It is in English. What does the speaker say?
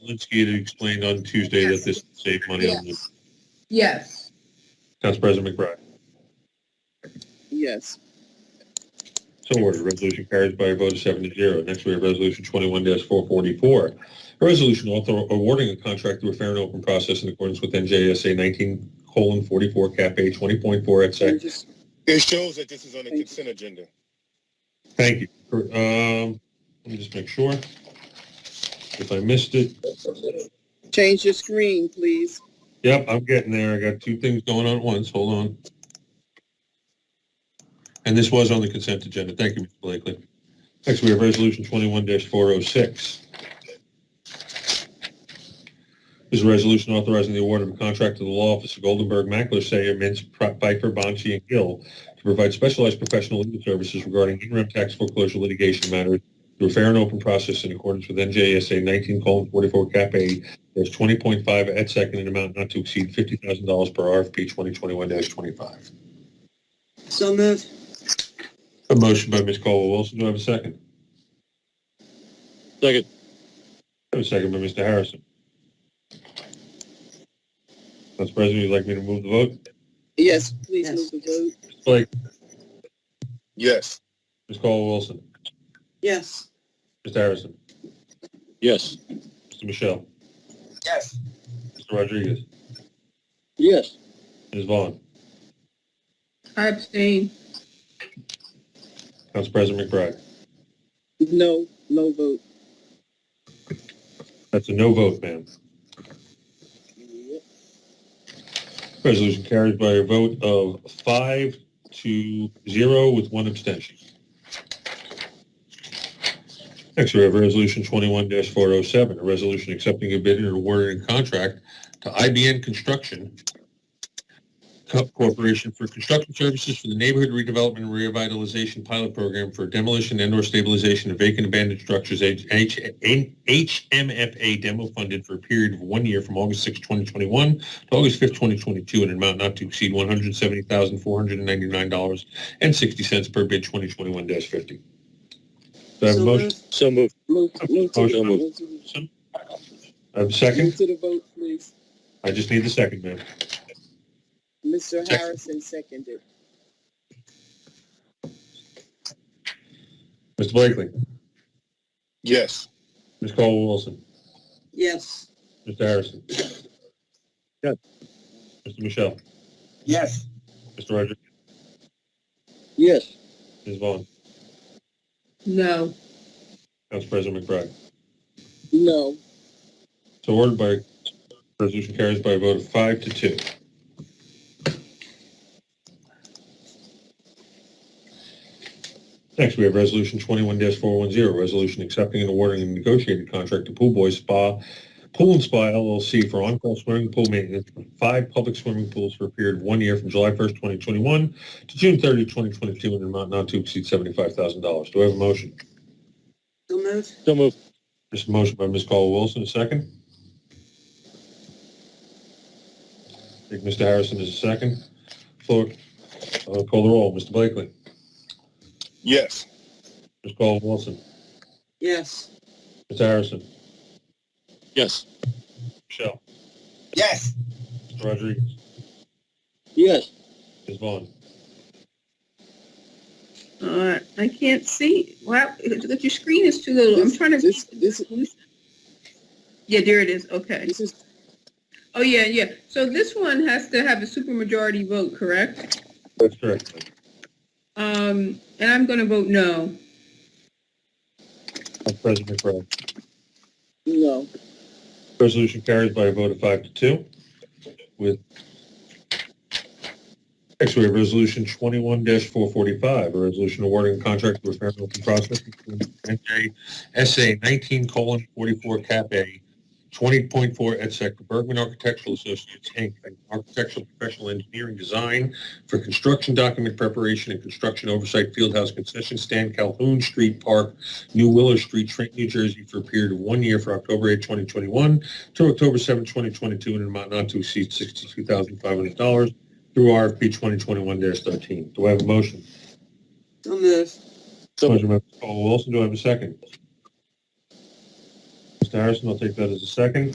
Linsky had explained on Tuesday that this would save money on the Yes. Yes. Council President McBride. Yes. So ordered. Resolution carries by a vote of seven to zero. Next, we have Resolution 21-444. A resolution author awarding a contract through a fair and open process in accordance with NJSA 19:44, Cap A 20.4, et cetera. And just- It shows that this is on the Thank you. consent agenda. Thank you. Um, let me just make sure. If I missed it, Change your screen, please. Yep, I'm getting there. I got two things going on at once. Hold on. And this was on the consent agenda. Thank you, Mr. Blakely. Next, we have Resolution 21-406. This is a resolution authorizing the award of a contract to the law office of Goldenberg, Mackler, Sayer, Mintz, Piper, Bonci, and Gill to provide specialized professional legal services regarding interim tax foreclosure litigation matters through a fair and open process in accordance with NJSA 19:44 Cap A there's twenty point five at second in amount not to exceed fifty thousand dollars per RFP twenty twenty-one twenty-five. So moved. A motion by Ms. Caldwell Wilson. Do I have a second? Second. I have a second by Mr. Harrison. Council President, you'd like me to move the vote? Yes, please Yes. move the vote. Ms. Blake, Yes. Ms. Caldwell Wilson, Yes. Mr. Harrison, Yes. Mr. Michelle, Yes. Mr. Rodriguez, Yes. Ms. Vaughn. I abstain. Council President McBride. No, no vote. That's a no vote, ma'am. Resolution carries by a vote of five to zero with one abstention. Next, we have Resolution 21-407, a resolution accepting a bid and awarding a contract to IBN Construction Co- Corporation for construction services for the Neighborhood Redevelopment and Revitalization Pilot Program for demolition and/or stabilization of vacant abandoned structures, H- H- HMFA demo funded for a period of one year from August 6, 2021 August 5th, 2022, in an amount not to exceed $170,499.60 per bid 2021-50. Do I have a So motion? moved. So moved. Move, move to, Motion. move to, I have a second? move to the vote, please. I just need the second, ma'am. Mr. Harrison seconded. Mr. Blakely, Yes. Ms. Caldwell Wilson, Yes. Mr. Harrison. Yes. Mr. Michelle, Yes. Mr. Rodriguez, Yes. Ms. Vaughn, No. Council President McBride. No. So ordered by, resolution carries by a vote of five to two. Next, we have Resolution 21-410, resolution accepting and awarding a negotiated contract to Pool Boys Spa, Pool and Spa LLC for on-call swimming pool maintenance for five public swimming pools for a period of one year from July 1st, 2021 to June 30, 2022, in an amount not to exceed $75,000. Do I have a motion? So moved. So moved. There's a motion by Ms. Caldwell Wilson, a second. I think Mr. Harrison is a second. Floor, uh, call the roll. Mr. Blakely, Yes. Ms. Caldwell Wilson, Yes. Mr. Harrison, Yes. Michelle, Yes. Mr. Rodriguez, Yes. Ms. Vaughn. Uh, I can't see. Wow, look, your screen is too little. I'm trying to. This, this, Yeah, there it is. Okay. this is, Oh, yeah, yeah. So this one has to have a supermajority vote, correct? That's correct. ma'am. Um, and I'm gonna vote no. Council President McBride. no. Resolution carries by a vote of five to two with next we have resolution twenty-one four forty-five, a resolution awarding a contract to a fair and open process between NJSA nineteen colon forty-four cap A twenty point four et sec Bergman Architectural Associates, Inc., an architectural professional engineering design for construction document preparation and construction oversight fieldhouse concession stand Calhoun Street Park, New Willow Street, Trenton, New Jersey, for a period of one year from October 8, 2021 to October 7, 2022, in an amount not to exceed $62,500 through RFP 2021-13. Do I have a motion? So moved. So moved. Motion by Mr. Caldwell Wilson, do I have a second? Mr. Harrison, I'll take that as a second.